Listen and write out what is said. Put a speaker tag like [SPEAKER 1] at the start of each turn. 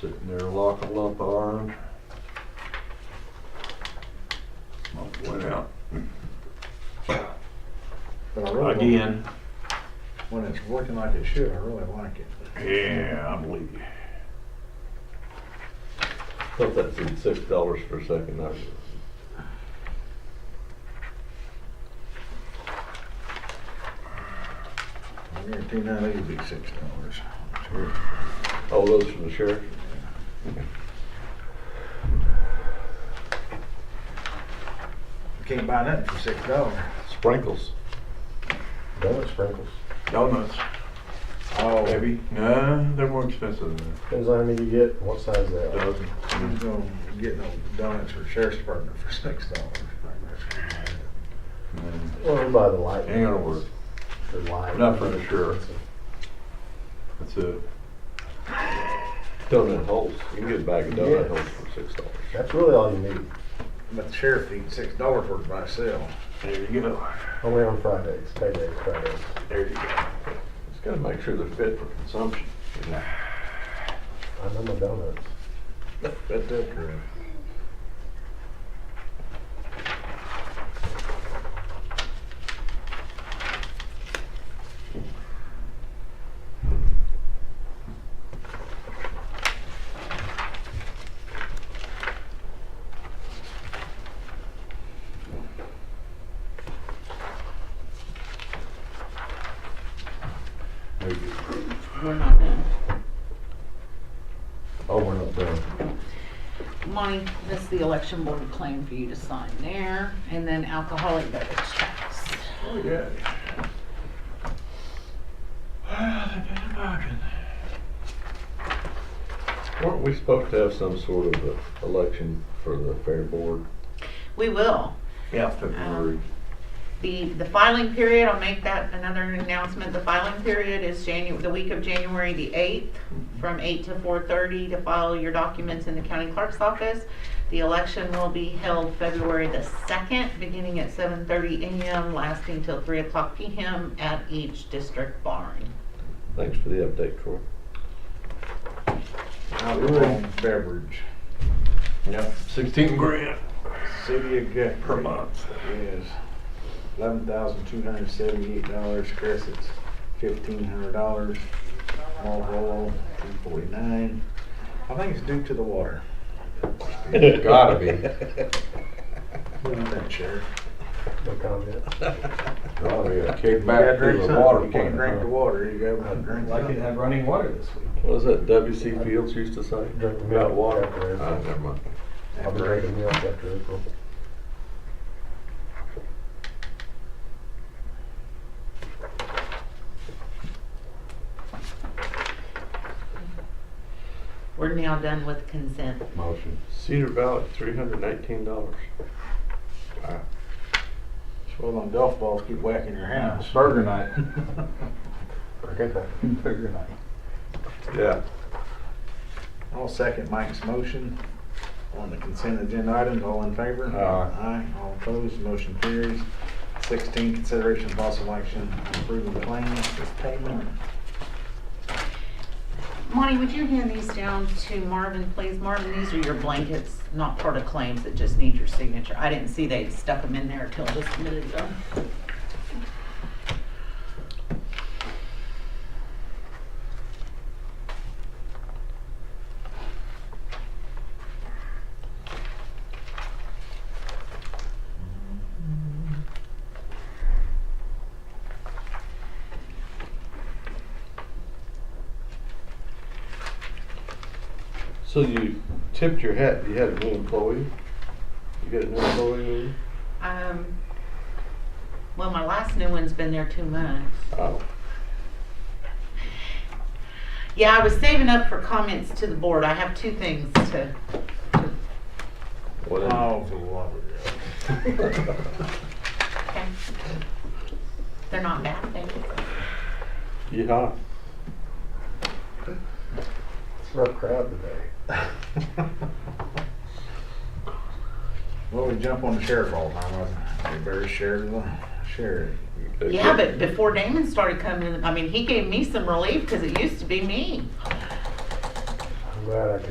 [SPEAKER 1] Sitting there locking up arms. Monk Went out
[SPEAKER 2] But I really don't-
[SPEAKER 1] again.
[SPEAKER 2] When it's working like it should, I really like it.
[SPEAKER 1] Yeah, I believe you. Thought that said six dollars for a second. I-
[SPEAKER 2] I guarantee now it'll be six dollars.
[SPEAKER 1] Oh, those from the sheriff?
[SPEAKER 2] You can't buy nothing for six dollars.
[SPEAKER 1] Sprinkles.
[SPEAKER 3] Donut sprinkles.
[SPEAKER 4] Donuts.
[SPEAKER 2] Oh.
[SPEAKER 4] Maybe. No, they're more expensive than
[SPEAKER 3] Depends on how many you get, what size they
[SPEAKER 4] a
[SPEAKER 3] are.
[SPEAKER 4] dozen. Mm-hmm.
[SPEAKER 2] I'm gonna get no donuts for sheriff's department for six dollars.
[SPEAKER 4] Mm.
[SPEAKER 3] Well, we buy the light.
[SPEAKER 4] Ain't gonna work.
[SPEAKER 3] The light.
[SPEAKER 4] Not for the sheriff. That's it.
[SPEAKER 1] Donut holes. You can get a bag of donut holes for six dollars.
[SPEAKER 3] That's really all you need.
[SPEAKER 2] But the sheriff eats six dollars worth by himself.
[SPEAKER 4] There you go.
[SPEAKER 3] Only on Fridays, paydays, Fridays.
[SPEAKER 4] There you go.
[SPEAKER 1] Just gotta make sure they're fit for consumption. you know.
[SPEAKER 3] I know my donuts.
[SPEAKER 2] That's it, true.
[SPEAKER 1] There you go.
[SPEAKER 5] We're not done.
[SPEAKER 3] Oh, we're not done.
[SPEAKER 5] Monty, this is the election board claim for you to sign there, and then alcoholic beverage tax.
[SPEAKER 4] Oh, yeah. Well, they did a bargain.
[SPEAKER 1] Weren't we supposed to have some sort of a election for the fair board? Uh-huh.
[SPEAKER 5] We will.
[SPEAKER 4] Yeah, February.
[SPEAKER 5] The, the filing period, I'll make that another announcement, the filing period is Janu, the week of January the eighth, from eight to four thirty to file your documents in the county clerk's office. The election will be held February the second, beginning at seven thirty AM, lasting till three o'clock PM at each district barn.
[SPEAKER 1] Thanks for the update, Troy.
[SPEAKER 2] Alcohol and beverage,
[SPEAKER 4] Yeah, sixteen grand
[SPEAKER 2] city of Guthrie.
[SPEAKER 4] per month.
[SPEAKER 2] Is eleven thousand two hundred seventy-eight dollars, Crescent's fifteen hundred dollars, Malt Royal, two forty-nine. I think it's due to the water.
[SPEAKER 1] Gotta be.
[SPEAKER 2] What do you think, Sheriff?
[SPEAKER 3] No comment.
[SPEAKER 1] Gotta be a
[SPEAKER 2] gotta
[SPEAKER 1] kickback
[SPEAKER 2] drink
[SPEAKER 1] to the
[SPEAKER 2] something.
[SPEAKER 1] water
[SPEAKER 2] You can't drink the
[SPEAKER 1] plant.
[SPEAKER 2] water, you gotta drink
[SPEAKER 6] Like it
[SPEAKER 2] something.
[SPEAKER 6] had running water this week.
[SPEAKER 1] What is that W.C. Fields used to say?
[SPEAKER 3] Drink the milk.
[SPEAKER 1] About water.
[SPEAKER 3] after April.
[SPEAKER 1] Ah, never mind.
[SPEAKER 3] I'll be drinking milk after April.
[SPEAKER 5] We're now done with consent.
[SPEAKER 1] Motion. Cedar Valley, three hundred and eighteen dollars.
[SPEAKER 2] Well, them golf balls keep whacking your house.
[SPEAKER 6] Burger night.
[SPEAKER 3] Okay, thank you.
[SPEAKER 6] Burger night.
[SPEAKER 1] Yeah.
[SPEAKER 2] I'll second Mike's motion on the consent agenda items. All in favor?
[SPEAKER 1] Aye.
[SPEAKER 2] Aye. All opposed, motion carries. Sixteen, consideration of possible action on approving claims as payment.
[SPEAKER 5] Monty, would you hand these down to Marvin, please? Marvin, these are your blankets, not part of claims that just need your signature. I didn't see they stuck them in there till just a minute ago.
[SPEAKER 1] So you tipped your hat, you had a new employee? You got a new employee?
[SPEAKER 5] Um, well, my last new one's been there two months.
[SPEAKER 1] Oh,
[SPEAKER 5] Yeah, I was saving up for comments to the board. I have two things to,
[SPEAKER 1] what?
[SPEAKER 2] Oh, for the love of God.
[SPEAKER 5] okay? They're not bad things.
[SPEAKER 1] Yeehaw.
[SPEAKER 3] It's a rough crowd today.
[SPEAKER 2] Well, we jump on the sheriff all the time. wasn't We bury sheriff, sheriff.
[SPEAKER 5] Yeah, but before Damon started coming in, I mean, he gave me some relief because it used to be me.
[SPEAKER 3] I'm glad I